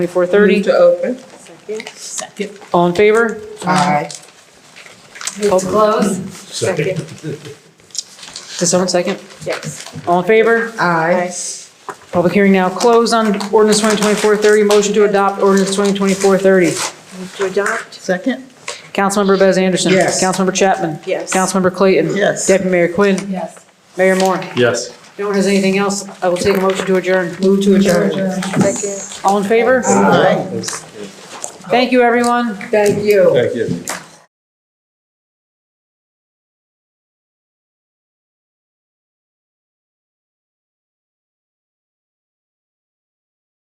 2430. To open. Second. All in favor? Aye. Move to close. Second. Does someone second? Yes. All in favor? Aye. Public hearing now closed on ordinance 2024-30. Motion to adopt ordinance 2024-30. Move to adopt? Second. Councilmember Bez Anderson. Yes. Councilmember Chapman. Yes. Councilmember Clayton. Yes. Deputy Mayor Quinn. Yes. Mayor Moore. Yes. If no one has anything else, I will take a motion to adjourn. Move to adjourn. Second. All in favor? Aye. Thank you, everyone. Thank you. Thank you.